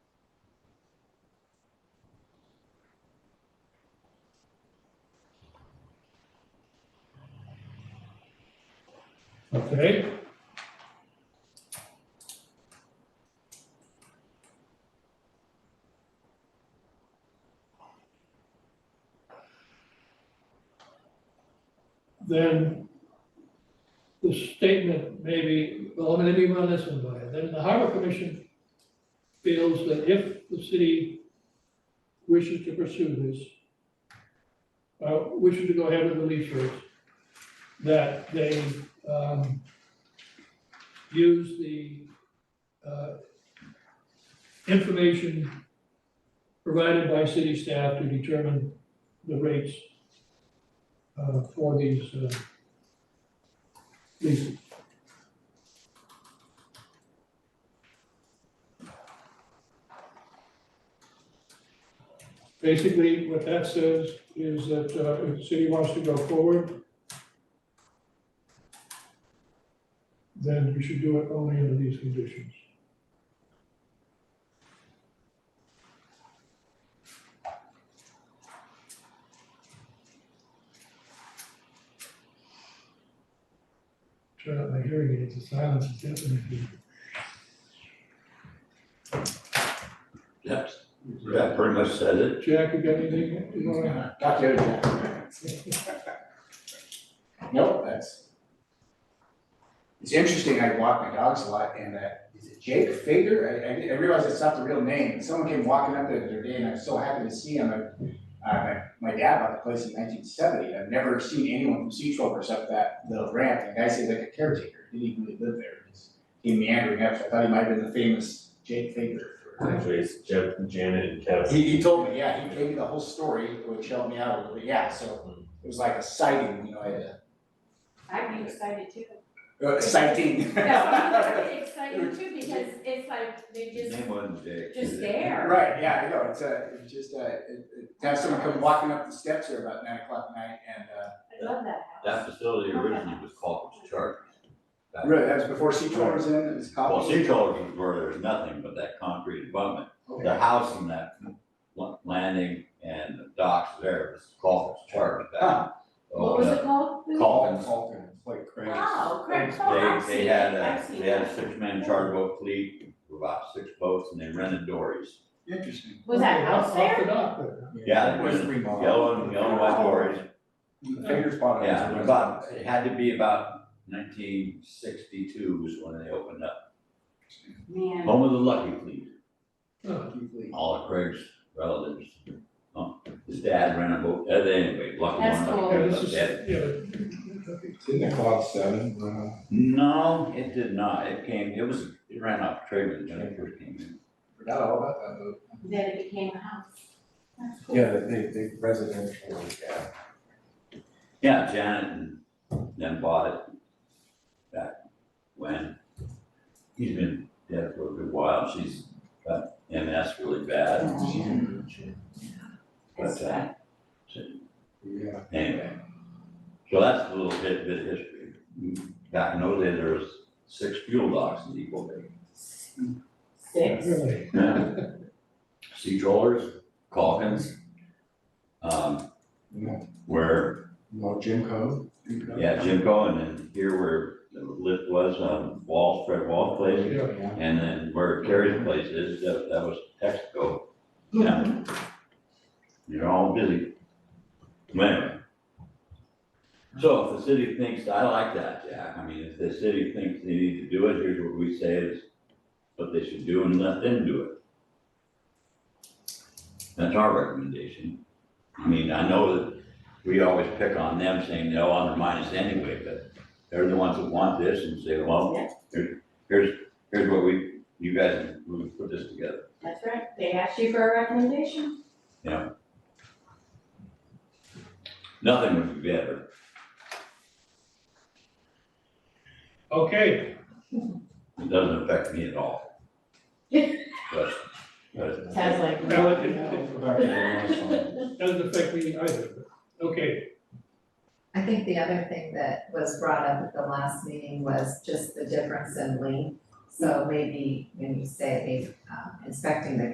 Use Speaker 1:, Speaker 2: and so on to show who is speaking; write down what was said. Speaker 1: Okay. Then the statement maybe, well, let me run this one by you. Then the harbor commission feels that if the city wishes to pursue this, uh, wishes to go ahead with the lease rates, that they um, use the uh, information provided by city staff to determine the rates uh, for these uh, leases. Basically, what that says is that uh, if the city wants to go forward, then you should do it only under these conditions. Turn out my hearing aids, the silence is deafening.
Speaker 2: Yes, that pretty much said it.
Speaker 1: Jack, you got anything? you wanna-
Speaker 3: Got the other guy. Nope, that's. It's interesting, I walk my dogs a lot and that, is it Jake Fader? I, I, I realize it's not the real name, but someone came walking up there the other day and I was so happy to see him. I- Uh, my, my dad bought the place in nineteen seventy, I've never seen anyone from Sea Trovers up that little ramp, and the guy seemed like a caretaker, didn't even really live there. He just Came meandering up, so I thought he might have been the famous Jake Fader.
Speaker 4: Actually, it's Jeff, Janet and Kevin.
Speaker 3: He, he told me, yeah, he gave me the whole story, which helped me out a little bit, yeah, so it was like a sighting, you know, I had
Speaker 5: I'd be excited too.
Speaker 3: a, a sighting.
Speaker 5: No, I'd be excited too because it's like they
Speaker 2: His
Speaker 5: just,
Speaker 2: name wasn't Jake.
Speaker 5: just there.
Speaker 3: Right, yeah, I know, it's a, it's just a, it- it- to have someone come walking up the steps here about nine o'clock at night and, uh,
Speaker 5: I love that house.
Speaker 2: That facility originally was Cocos Chargers. That-
Speaker 3: really, that was before Sea Troll was in, it was
Speaker 2: Well,
Speaker 3: coffee.
Speaker 2: sea chargers were, there was nothing but that concrete abutment. The
Speaker 3: Okay,
Speaker 2: house and that la- landing and the docks there was Cocos Chargers.
Speaker 3: Huh.
Speaker 5: What
Speaker 2: Uh,
Speaker 5: was it called? Oh,
Speaker 2: Called,
Speaker 3: Alton, like crazy.
Speaker 5: Wow, great call.
Speaker 2: They,
Speaker 5: I've
Speaker 2: they
Speaker 5: seen
Speaker 2: had
Speaker 5: it, I've
Speaker 2: a,
Speaker 5: seen
Speaker 2: they had
Speaker 5: it.
Speaker 2: a six-man charter boat fleet, about six boats, and they rented dories.
Speaker 3: Interesting.
Speaker 5: Was that house
Speaker 1: Off the
Speaker 5: there?
Speaker 1: dock there.
Speaker 2: Yeah,
Speaker 3: It
Speaker 2: it
Speaker 3: was
Speaker 2: was
Speaker 3: remodeled.
Speaker 2: Yellow and yellow and white dories,
Speaker 3: Fingers bottom.
Speaker 2: Yeah, about, it had to be about nineteen sixty-two is when they opened up.
Speaker 5: Man,
Speaker 2: Home of the Lucky Fleet,
Speaker 1: Huh.
Speaker 2: all of Craig's relatives. Um, His dad ran a boat, uh, anyway, Lucky One.
Speaker 5: That's
Speaker 2: Lucky
Speaker 5: cool.
Speaker 2: Two,
Speaker 1: Yeah, this
Speaker 2: Lucky
Speaker 1: is,
Speaker 2: Dad.
Speaker 1: yeah.
Speaker 6: Didn't it cost seven?
Speaker 3: uh,
Speaker 6: Well,
Speaker 2: No, it did not, it came, it was, it ran off trailer when it first came in.
Speaker 3: Forgot all about that, though.
Speaker 5: then it became a house. That's cool.
Speaker 6: Yeah, they, they residential, yeah.
Speaker 2: Yeah, Janet and then bought it back when. He's been dead for a good while, she's got MS really bad, but, uh,
Speaker 6: Yeah.
Speaker 2: Anyway, so that's a little bit, bit of history. Back in those days, there was six fuel docks in Depot Bay.
Speaker 5: Six.
Speaker 1: Really.
Speaker 2: Sea trawlers, Calkins, um,
Speaker 6: No,
Speaker 2: where,
Speaker 6: no Jim Cove?
Speaker 2: yeah, Jimco, and then here where the lift was, um, Wall, Fred Wall place,
Speaker 6: Yeah.
Speaker 2: and then where Terry's place is, that, that was Texaco. Yeah. You're all busy. Anyway. So if the city thinks, I like that, Jack, I mean, if the city thinks they need to do it, here's what we say is what they should do and let them do it. That's our recommendation. I mean, I know that we always pick on them saying they'll undermine us anyway, but they're the ones that want this and say, well,
Speaker 5: Yeah.
Speaker 2: here- here's, here's what we, you guys, we put this together.
Speaker 5: That's right. They asked you for a recommendation.
Speaker 2: Nothing would be better.
Speaker 1: Okay,
Speaker 2: It doesn't affect me at all. But, but
Speaker 5: Sounds like.
Speaker 1: Well, it- it-
Speaker 6: Yeah.
Speaker 1: it doesn't affect me either, but, okay.
Speaker 7: I think the other thing that was brought up at the last meeting was just the difference in length. So maybe when you say, um, inspecting the